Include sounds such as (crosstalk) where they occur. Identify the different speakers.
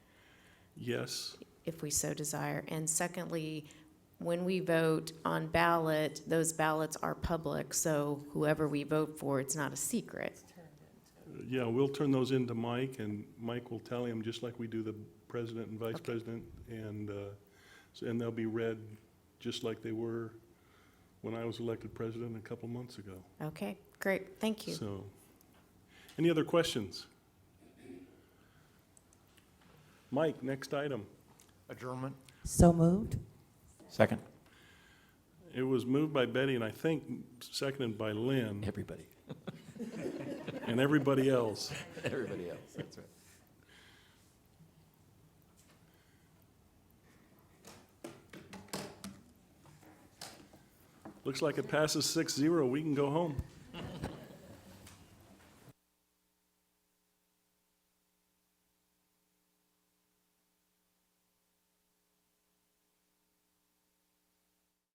Speaker 1: Yes.
Speaker 2: if we so desire. And secondly, when we vote on ballot, those ballots are public, so whoever we vote for, it's not a secret.
Speaker 1: Yeah, we'll turn those into Mike, and Mike will tally them, just like we do the president and vice
Speaker 2: Okay.
Speaker 1: president. And, uh, so- and they'll be read just like they were when I was elected president a couple months ago.
Speaker 2: Okay, great, thank you.
Speaker 1: So, any other questions? Mike, next item.
Speaker 3: Adjournment?
Speaker 4: So moved.
Speaker 3: Second.
Speaker 1: It was moved by Betty, and I think seconded by Lynn
Speaker 3: Everybody.
Speaker 1: and everybody else.
Speaker 3: (laughs) Everybody else, that's right.
Speaker 1: Looks like it passes six zero. We can go home.